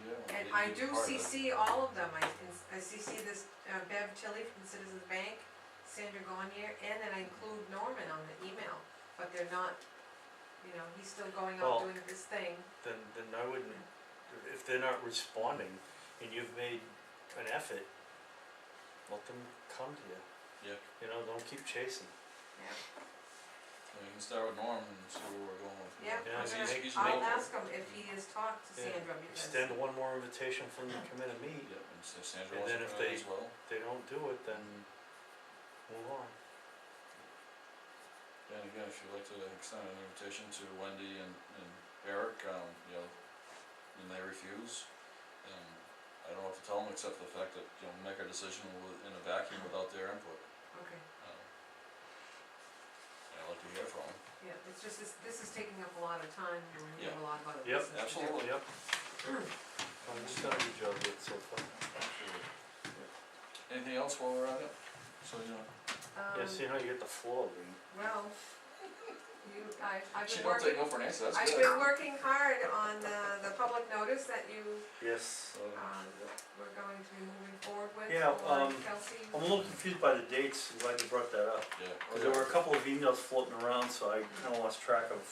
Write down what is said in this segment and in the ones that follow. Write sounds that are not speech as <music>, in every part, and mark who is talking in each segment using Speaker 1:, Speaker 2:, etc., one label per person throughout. Speaker 1: I
Speaker 2: be
Speaker 1: do
Speaker 2: part of it.
Speaker 1: CC all of them, I, I CC this uh, Bev Tilly from Citizens Bank, Sandra Gonyer, and then I include Norman on the email, but they're not, you know, he's still going
Speaker 2: Well-
Speaker 1: out doing this thing.
Speaker 2: Then, then I wouldn't, if they're not responding and you've made an effort, let them come to you.
Speaker 3: Yeah.
Speaker 2: You know, don't keep chasing.
Speaker 3: So we can start with Norm and see where we're going with.
Speaker 1: Yeah,
Speaker 2: Yeah,
Speaker 1: I'm
Speaker 3: He's-
Speaker 2: so you think
Speaker 1: gonna,
Speaker 3: he's
Speaker 1: I'll
Speaker 3: making-
Speaker 1: ask him if he has talked to
Speaker 2: Yeah,
Speaker 1: Sandra, because,
Speaker 2: Extend one more invitation from the committee meet.
Speaker 3: Yeah, and so Sandra
Speaker 2: And
Speaker 3: wants
Speaker 2: then
Speaker 3: to
Speaker 2: if
Speaker 3: put it
Speaker 2: they-
Speaker 3: as well.
Speaker 2: If they don't do it, then
Speaker 3: Mm-hmm.
Speaker 2: move on.
Speaker 3: Yeah, And again, if you'd like to extend an invitation to Wendy and, and Eric, um, you know, and they refuse, um, I don't know what to tell them except for the fact that, you know, make a decision with, in a vacuum without their input.
Speaker 1: okay,
Speaker 3: Um, and I'd like to hear from them.
Speaker 1: yeah, it's just, this, this is taking up a lot of time, and we have a lot of other
Speaker 2: Yep,
Speaker 1: business to do.
Speaker 3: absolutely.
Speaker 2: Yep. <clears throat> I'm just gonna be judged with so far.
Speaker 3: Absolutely. Anything else while we're at it? So, you know,
Speaker 2: Yeah,
Speaker 1: Um,
Speaker 2: see how you get the floor, Lean.
Speaker 1: Well, you, I, I've
Speaker 3: she
Speaker 1: been
Speaker 3: don't take
Speaker 1: working,
Speaker 3: no for an answer, that's
Speaker 1: I've
Speaker 3: good.
Speaker 1: been working hard on uh, the, the public notice that you
Speaker 2: Yes.
Speaker 3: So,
Speaker 1: um, we're going to be moving forward with,
Speaker 2: Yeah,
Speaker 1: or
Speaker 2: um,
Speaker 1: Kelsey.
Speaker 2: I'm a little confused by the dates, I'm glad you brought that up.
Speaker 3: Yeah.
Speaker 2: Cause there were a couple of emails floating around, so I kinda lost track of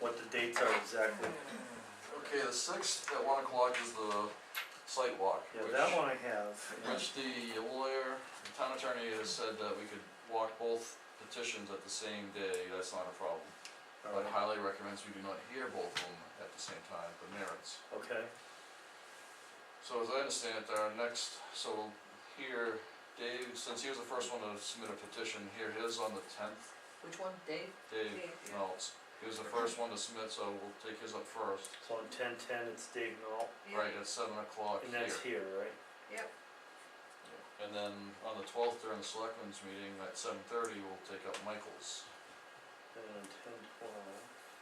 Speaker 2: what the dates are exactly.
Speaker 3: Okay, the sixth at one o'clock is the site walk.
Speaker 2: Yeah,
Speaker 3: which-
Speaker 2: that one I have. yeah.
Speaker 3: Which the lawyer, the town attorney has said that we could walk both petitions at the same day, that's not a problem. But
Speaker 2: Alright,
Speaker 3: highly recommends we do not hear both of them at the same time, the merits.
Speaker 2: Okay,
Speaker 3: So as I understand it, our next, so we'll hear Dave, since he was the first one to submit a petition, hear his on the tenth.
Speaker 4: Which one, Dave?
Speaker 3: Dave
Speaker 1: Dave, yeah.
Speaker 3: Meltz, he was the first one to submit, so we'll take his up first.
Speaker 2: so on ten ten, it's Dave Knoll,
Speaker 3: Right, at seven o'clock
Speaker 2: and
Speaker 3: here.
Speaker 2: that's here, right?
Speaker 1: Yep,
Speaker 3: And then on the twelfth during the selectmen's meeting at seven thirty, we'll take up Michael's.
Speaker 2: And then ten twelve,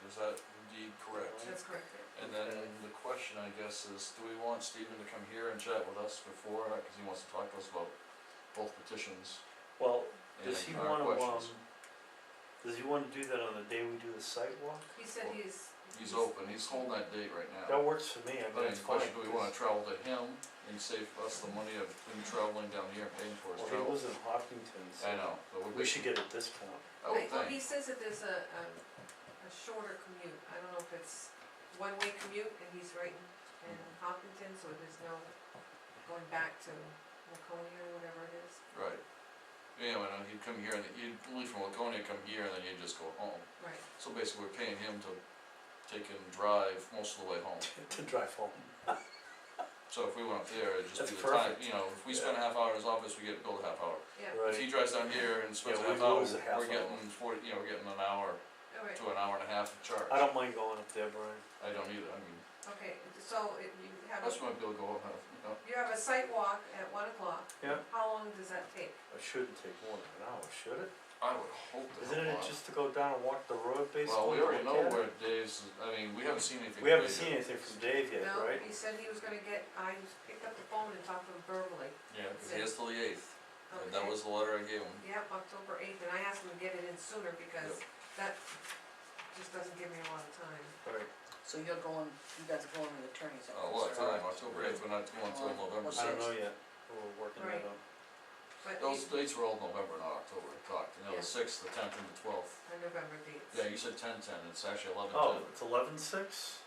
Speaker 3: Is that indeed correct?
Speaker 1: that's correct,
Speaker 3: And then the question, I guess, is do we want Stephen to come here and chat with us before, Uh, cause he wants to talk to us about both petitions
Speaker 2: well,
Speaker 3: and
Speaker 2: does he
Speaker 3: our
Speaker 2: wanna, um,
Speaker 3: questions?
Speaker 2: does he wanna do that on the day we do the sidewalk?
Speaker 1: he said he's.
Speaker 3: He's open, he's holding that date right now.
Speaker 2: That works for me, I
Speaker 3: But
Speaker 2: mean,
Speaker 3: the
Speaker 2: it's fine.
Speaker 3: question, do we wanna travel to him and save us the money of him traveling down here and paying for his
Speaker 2: Well, he
Speaker 3: travel?
Speaker 2: lives in Hopkinton, so
Speaker 3: I know, but would
Speaker 2: we should get a discount.
Speaker 3: I would
Speaker 1: Like, Well,
Speaker 3: think.
Speaker 1: he says that there's a, a, a shorter commute, I don't know if it's one-way commute, and he's right in- in Hopkinton, so there's no going back to Laconia or whatever it is.
Speaker 3: Right. Yeah, well, no, he'd come here and he'd leave from Laconia, come here, and then he'd just go home.
Speaker 1: Right.
Speaker 3: So basically, we're paying him to take and drive most of the way home.
Speaker 2: To drive home.
Speaker 3: So if we went up there, it'd
Speaker 2: That's
Speaker 3: just be the time,
Speaker 2: perfect.
Speaker 3: you know, if we spend a half hour in his office, we get billed a half hour.
Speaker 1: Yeah,
Speaker 3: If he drives down here and spends a
Speaker 2: Yeah, we
Speaker 3: half hour,
Speaker 2: lose a half
Speaker 3: we're getting
Speaker 2: hour.
Speaker 3: forty, you know, we're getting an hour
Speaker 1: all right,
Speaker 3: to an hour and a half of charge.
Speaker 2: I don't mind going up there, Brian.
Speaker 3: I don't either, I mean,
Speaker 1: okay, so it- you have,
Speaker 3: that's
Speaker 1: a-
Speaker 3: my bill go up, uh, you know,
Speaker 1: you have a site walk at one o'clock.
Speaker 2: Yeah.
Speaker 1: How long does that take?
Speaker 2: It shouldn't take more than an hour, should it?
Speaker 3: I would hope that.
Speaker 2: Isn't it just to go down and walk the road basically?
Speaker 3: Well, we already
Speaker 2: look
Speaker 3: know
Speaker 2: at it?
Speaker 3: where Dave's, I mean, we haven't seen anything.
Speaker 2: We haven't
Speaker 3: big.
Speaker 2: seen anything from Dave yet,
Speaker 1: No,
Speaker 2: right?
Speaker 1: he said he was gonna get, I picked up the phone and talked to him verbally.
Speaker 3: Yeah, 'cause he has till the eighth, and that
Speaker 1: Okay.
Speaker 3: was the letter I gave him.
Speaker 1: Yep, October eighth, and I asked him to get it in sooner because that just doesn't give me a lot of time.
Speaker 2: Alright,
Speaker 4: So you're going, you guys are going to the attorney's
Speaker 3: A
Speaker 4: office,
Speaker 3: lot of
Speaker 4: right?
Speaker 3: Uh, time, October eighth, we're not going until November
Speaker 2: I
Speaker 3: sixth.
Speaker 2: don't know yet, we're working that
Speaker 1: Right.
Speaker 2: out.
Speaker 1: But
Speaker 3: Those
Speaker 1: he-
Speaker 3: dates were all November, not October, I talked, you know,
Speaker 1: Yeah.
Speaker 3: the sixth, the tenth, and the twelfth.
Speaker 1: on November dates.
Speaker 3: Yeah, you said ten ten, it's actually eleven
Speaker 2: Oh,
Speaker 3: ten.
Speaker 2: it's eleven six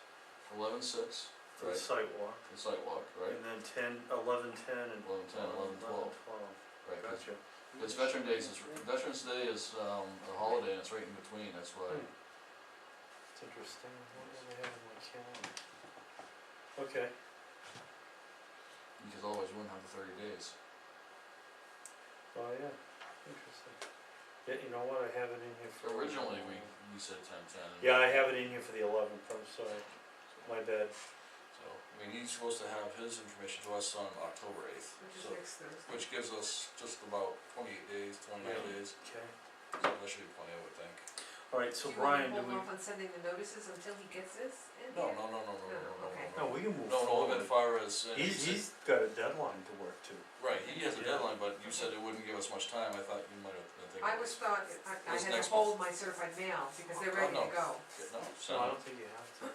Speaker 3: Eleven six,
Speaker 2: for the
Speaker 3: right,
Speaker 2: sidewalk,
Speaker 3: the sidewalk, right?
Speaker 2: and then ten, eleven ten and.
Speaker 3: Eleven ten, eleven twelve,
Speaker 2: 12.
Speaker 3: right, 'cause
Speaker 2: Gotcha.
Speaker 3: It's Veteran Days, it's, Veterans Day is, um, a holiday and it's right in between, that's why.
Speaker 2: Hmm. It's interesting, what do they have in my calendar? Okay,
Speaker 3: Because otherwise you wouldn't have the thirty days.
Speaker 2: oh yeah, interesting. Yeah, you know what, I have it in here for.
Speaker 3: Originally, we, you said ten ten.
Speaker 2: Yeah, I have it in here for the eleventh, I'm sorry, my bad.
Speaker 3: So, I mean, he's supposed to have his information to us on October eighth,
Speaker 1: Which is
Speaker 3: so,
Speaker 1: next Thursday.
Speaker 3: which gives us just about twenty-eight days, twenty-nine
Speaker 2: Yeah.
Speaker 3: days,
Speaker 2: Okay.
Speaker 3: so that should be plenty, I would think.
Speaker 2: Alright, so Brian, do
Speaker 1: you wanna
Speaker 2: we?
Speaker 1: hold off on sending the notices until he gets this in
Speaker 3: No,
Speaker 1: here?
Speaker 3: no, no, no, no, no, no, no,
Speaker 1: Oh, Okay.
Speaker 3: no.
Speaker 2: No, we can move
Speaker 3: No, no,
Speaker 2: forward.
Speaker 3: as far as, uh, you
Speaker 2: He's,
Speaker 3: said,
Speaker 2: he's got a deadline to work to.
Speaker 3: right, he has a
Speaker 2: Yeah.
Speaker 3: deadline, but you said it wouldn't give us much time, I thought you might have, I think.
Speaker 1: I
Speaker 3: it
Speaker 1: was thought, I, I
Speaker 3: It's
Speaker 1: had to
Speaker 3: next
Speaker 1: hold my certified mail because they're
Speaker 3: Oh,
Speaker 1: ready to
Speaker 3: no.
Speaker 1: go.
Speaker 3: Yeah, No,
Speaker 2: No,
Speaker 3: so.
Speaker 2: I don't think you have to.